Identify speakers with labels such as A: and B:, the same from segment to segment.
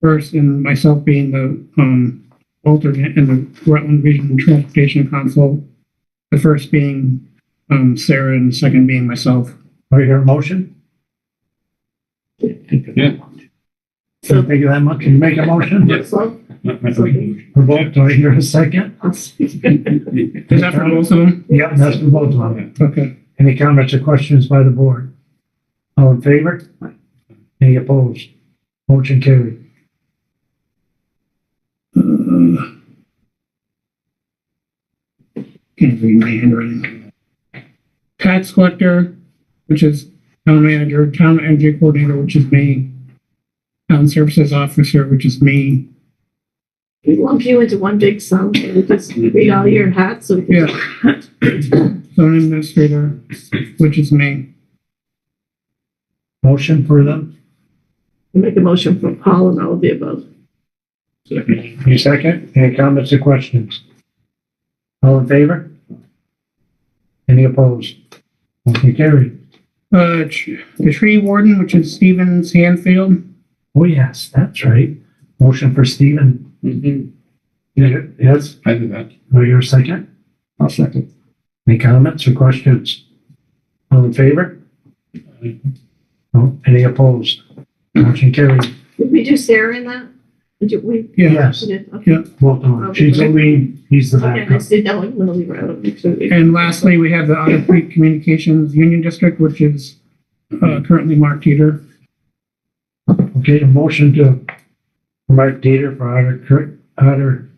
A: first, and myself being the, um, alternate and the Rutland Regional Transportation Council. The first being, um, Sarah and the second being myself.
B: Are you hear a motion?
C: Yeah.
B: So thank you that much. Can you make a motion?
C: Yes.
B: For both, do I hear a second?
A: Is that for both of them?
B: Yep, that's for both of them.
A: Okay.
B: Any comments or questions by the board? All in favor? Any opposed? Motion carried.
A: Uh, Can't read my handwriting. Tax collector, which is town manager, town energy coordinator, which is me. Town services officer, which is me.
D: We lump you into one big sum and you just read all your hats. so-
A: Mm-hmm. Yeah. Zone administrator, which is me.
B: Motion for them?
D: Make a motion for Paul and all of the above.
B: Any second? Any comments or questions? All in favor? Any opposed? Motion carried.
A: Uh, tr- the tree warden, which is Steven Sandfield.
B: Oh, yes, that's right. Motion for Stephen. Yeah, Yes,
C: I did that.
B: or your second?
C: I'll second.
B: Any comments or questions? All in favor?
C: Aye.
B: No, any opposed? Motion carried.
D: Did we do Sarah in that? Did you, we?
A: Yeah,
B: Yes,
D: we did, okay.
A: Yeah.
B: both of them. She's the lead, he's the
D: Okay, Oh, I
B: backup.
D: just didn't know, I'm gonna leave her out. make sure we-
A: and lastly, we have the Otter Creek Communications Union District, which is, uh, currently Mark Teeter.
B: Okay, a motion to Mark Dieter for Otter Creek, Otter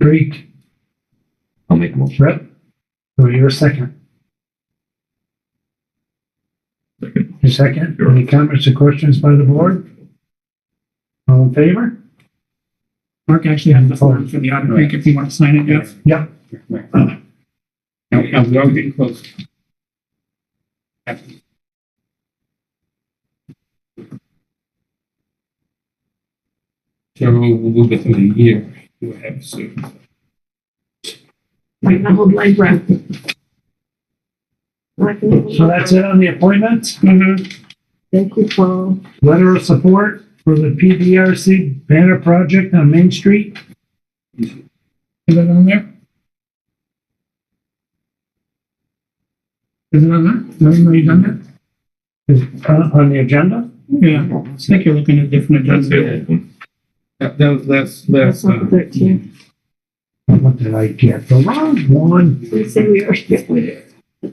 B: Creek
E: I'll make a motion.
B: rep. So you're second. Your second, any comments or questions by the board? All in favor?
A: Mark actually has the form for the Otter Creek if you want to sign it, Jeff.
B: Yep.
C: Now, now we're all getting close. So we'll we'll get to the year. We'll have soon.
D: Like my whole blank breath. Like,
B: So that's it on the appointments?
A: Mm-hmm.
D: Thank you, Paul.
B: letter of support for the PDRC banner project on Main Street.
A: Is it on there? Is it on there? Have you done
B: Is on on the agenda?
A: that? Yeah, I think you're looking at different
E: That's the
A: agendas.
E: old one.
C: That, that was last,
D: That's
C: last.
D: not the
C: uh,
D: thirteen.
B: What did I get? The wrong one.
D: We say we are.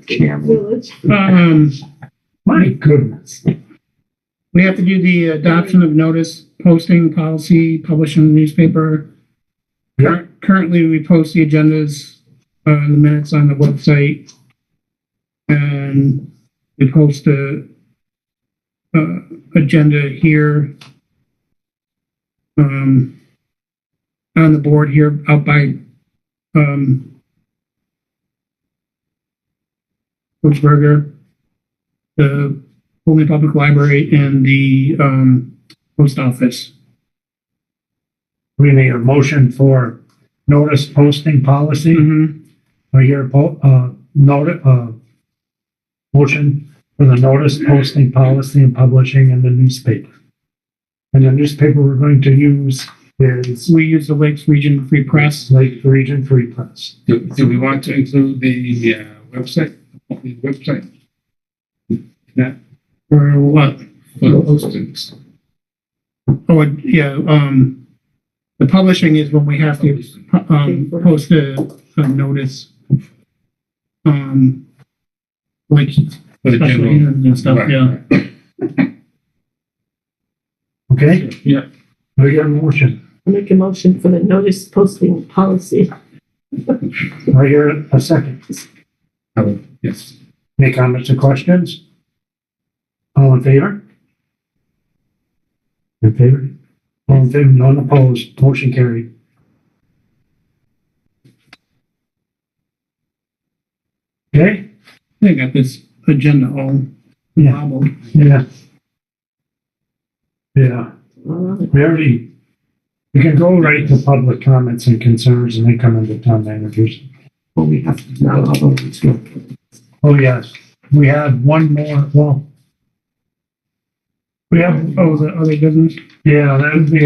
D: Village.
A: Um,
B: My goodness.
A: we have to do the adoption of notice, posting policy, publishing the newspaper.
B: Yeah.
A: Currently, we post the agendas, uh, the minutes on the website. And we post a, uh, agenda here. Um, on the board here out by, um, Coach Berger, the Pullman Public Library and the, um, post office.
B: We need a motion for notice posting policy
C: Mm-hmm.
A: Mhm.
B: or your, po- uh, notice, uh, motion for the notice posting policy and publishing in the newspaper. And the newspaper we're going to use is
A: We use the Lakes Region Free Press.
B: Lake Region Free Press.
C: Do, do we want to include the, uh, website, the website? That,
A: Or what?
C: for the postings.
A: Oh, and, yeah, um, the publishing is when we have to, um, post a, a notice. Um, like,
C: For the
A: special
C: general.
A: meetings and stuff,
C: Right,
A: yeah.
B: Okay?
C: right. Yeah,
B: We get a motion.
D: I Make a motion for the notice posting policy.
B: Right here, a second.
C: I would, yes.
B: Any comments or questions? All in favor? In favor? All in favor, none opposed, motion carried. Okay,
A: They got this agenda all
B: Yeah.
A: wobbled.
B: yeah. Yeah,
D: Uh,
B: we already, we can go right to public comments and concerns and then come into town managers.
E: Well, we have to, now, I'll vote it's good.
B: Oh, yes, we have one more, well.
A: We have, oh, the other business?
B: Yeah, that would be